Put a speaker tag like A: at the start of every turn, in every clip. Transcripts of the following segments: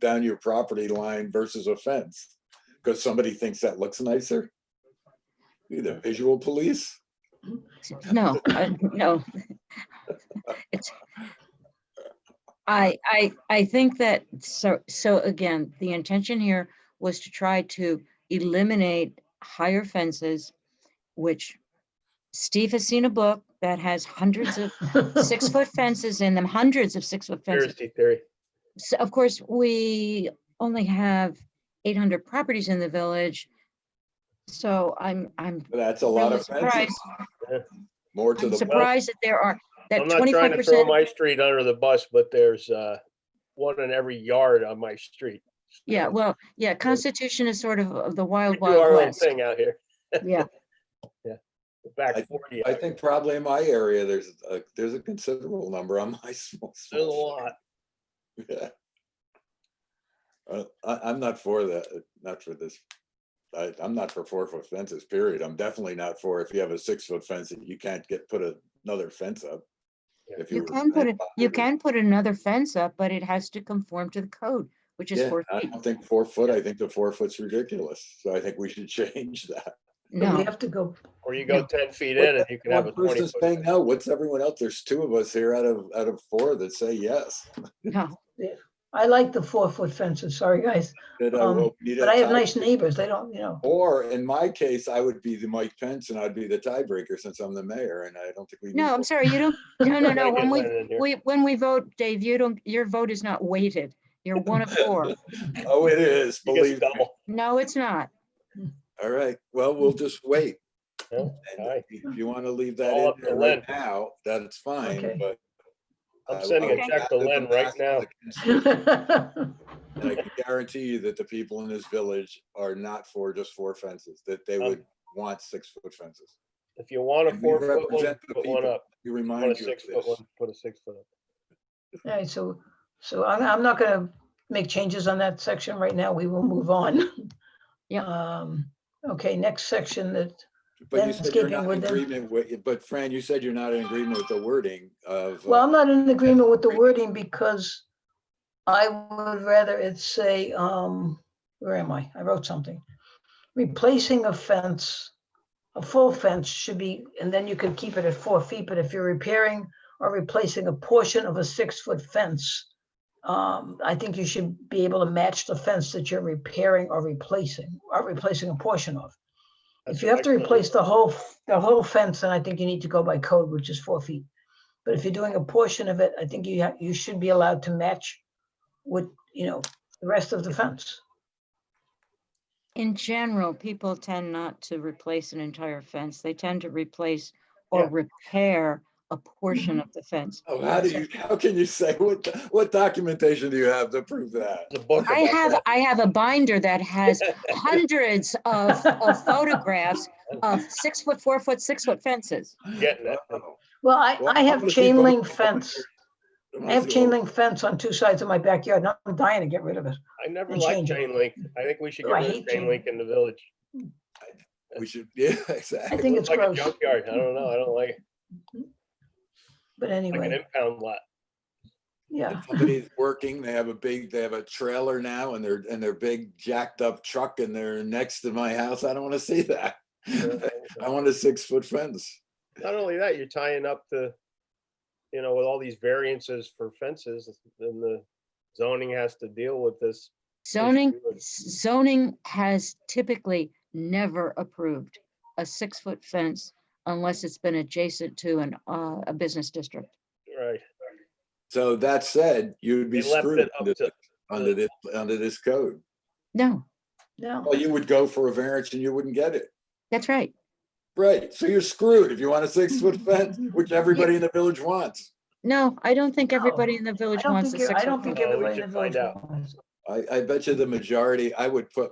A: down your property line versus a fence? Because somebody thinks that looks nicer? Be the visual police?
B: No, uh, no. It's. I, I, I think that, so, so again, the intention here was to try to eliminate higher fences, which Steve has seen a book that has hundreds of six-foot fences in them, hundreds of six-foot fences.
C: Conspiracy theory.
B: So of course, we only have eight hundred properties in the village. So I'm, I'm
A: That's a lot
B: really
A: of fences,
B: surprised
A: more to
B: I'm
A: the,
B: surprised that there are, that
C: I'm not trying
B: twenty-five
C: to throw
B: percent,
C: my street under the bus, but there's uh, one in every yard on my street.
B: yeah,
C: So
B: well, yeah, Constitution is sort of of the
C: We
B: wild,
C: do our
B: wild
C: own
B: west.
C: thing out here,
B: Yeah,
C: the back forty.
A: I think probably in my area, there's, a there's a considerable number on my small.
C: There's a
A: small
C: lot.
A: Yeah. Uh, I, I'm not for that, uh, not for this. I, I'm not for four foot fences, period. I'm definitely not for if you have a six foot fence that you can't get, put a- another fence up.
C: Yeah.
A: If
B: you
A: were
B: can put it,
A: grandfathered
B: you
A: in.
B: can put another fence up, but it has to conform to the code, which is
A: Yeah,
B: four
A: I
B: feet.
A: don't think four foot, I think the four foot's ridiculous. So I think we should change that.
D: But we
B: No,
D: have to go,
C: Or you go
B: Yeah.
C: ten feet in and you can have a
A: One
C: twenty.
A: person's
C: foot
A: saying
C: fence.
A: no, what's everyone else? There's two of us here out of, out of four that say yes.
B: no,
D: I like the four-foot fences, sorry, guys,
A: That, uh,
D: Um,
A: well, we need a
D: but I have
A: tie-
D: nice neighbors, they don't, you know,
A: Or in my case, I would be the Mike Pence and I'd be the tiebreaker since I'm the mayor and I don't think we. need
B: no, I'm
A: four-
B: sorry, you don't, no, no,
C: I
B: no,
C: get
B: when we,
C: that in here.
B: we, when we vote, Dave, you don't, your vote is not weighted. You're one of four.
A: Oh, it is,
C: You get
A: believe me.
C: double.
B: No, it's not.
A: All right, well, we'll just wait.
C: Yeah,
A: And
C: alright.
A: If you want to leave that
C: All
A: in
C: up to
A: there
C: Lynn.
A: right now, that's fine,
D: Okay.
A: but.
C: I'm
A: I-
C: sending
A: I
C: a
A: would
C: check to
A: not
C: Lynn right
A: advise
C: now.
A: against it.
D: Well,
A: And I can guarantee you that the people in this village are not for just four fences, that they
C: Um,
A: would want six foot fences.
C: If you want a
A: And we
C: four foot one,
A: represent the
C: put one
A: people.
C: up.
A: We
C: You Want
A: remind
C: a
A: you of
C: six foot
A: this.
C: one, put a six foot up.
D: All right, so, so I'm, I'm not gonna make changes on that section right now. We will move on.
B: Yep.
D: Um, okay, next section that,
A: But you said you're
D: landscaping
A: not in
D: with them.
A: agreement with, but Fran, you said you're not in agreement with the wording of. uh,
D: well, I'm not in agreement with the wording because I would rather it say, um, where am I? I wrote something. Replacing a fence, a full fence should be, and then you could keep it at four feet, but if you're repairing or replacing a portion of a six-foot fence, um, I think you should be able to match the fence that you're repairing or replacing, or replacing a portion of.
C: That's
D: If you
C: what
D: have
C: I
D: to
C: call it.
D: replace the whole, f- the whole fence, then I think you need to go by code, which is four feet. But if you're doing a portion of it, I think you, ha- you should be allowed to match with, you know, the rest of the fence.
B: In general, people tend not to replace an entire fence. They tend to replace or
C: Yeah.
B: repair a portion of the fence.
A: Oh, how do you, how can you say, what, what documentation do you have to prove that?
C: The book.
B: I
C: about
B: have,
C: that.
B: I have a binder that has hundreds of, of photographs of six foot, four foot, six foot fences.
C: Getting it.
A: Wow.
D: Well, I,
A: Well,
D: I
A: I'm
D: have
A: gonna
D: chain
A: keep on
D: link
A: going.
D: fence.
A: I'm
D: I have
A: gonna
D: chain
A: go-
D: link fence on two sides of my backyard. and I'm dying to get rid of it.
C: I never
D: And
C: liked
D: change it.
C: chain link. I think we should
D: Oh,
C: get
D: I
C: rid of
D: hate
C: chain
D: chain
C: link in the village.
A: We should, yeah,
D: I
A: exactly.
D: think it's
C: Like a
D: gross,
C: junkyard. I don't know. I don't like it.
D: but
C: Like an
D: anyway,
C: impound lot.
D: yeah.
A: Somebody's working, they have a big, they have a trailer now and they're, and their big jacked up truck and they're next to my house. I don't want to see that. I want a six foot fence.
C: Not only that, you're tying up the, you know, with all these variances for fences, then the zoning has to deal with this.
B: Zoning,
C: do it.
B: zoning has typically never approved a six foot fence unless it's been adjacent to an, uh, a business district.
C: Right.
A: So that said, you'd be
C: They left
A: screwed
C: it up
A: under
C: to-
A: under this, under this code.
B: No,
D: No,
A: Well, you would go for a variance and you wouldn't get it.
B: that's right.
A: Right, so you're screwed if you want a six foot fence, which everybody in the village wants.
B: No, I don't think
D: No,
B: everybody in the
D: I
B: village
D: don't
B: wants a
D: think, you're-
B: six
D: I don't
B: foot
D: think
B: fence.
C: fence. Oh, we
D: everybody in
C: should
D: the
C: find
D: village.
C: out.
D: wants-
A: I, I bet you the majority, I would put,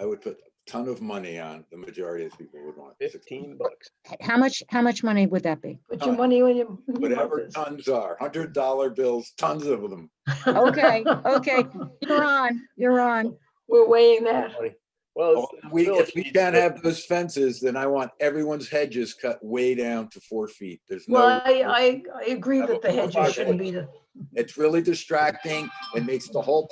A: I would put a ton of money on the majority of people would want. six-
C: Fifteen bucks.
B: How much, how much money would that be?
D: Put
A: Uh,
D: your money when you.
A: Whatever tons are, hundred dollar bills, tons of them.
B: Okay, okay, you're on, you're on.
D: We're weighing that.
C: Funny. Well, it's- the
A: We,
C: village
A: if we
C: needs
A: can't
C: to-
A: have those fences, then I want everyone's hedges cut way down to four feet. There's
D: Well,
A: no.
D: I, I, I agree
A: Have a
D: that the hedges
A: five-foot.
D: shouldn't be the,
A: It's really distracting. It makes the whole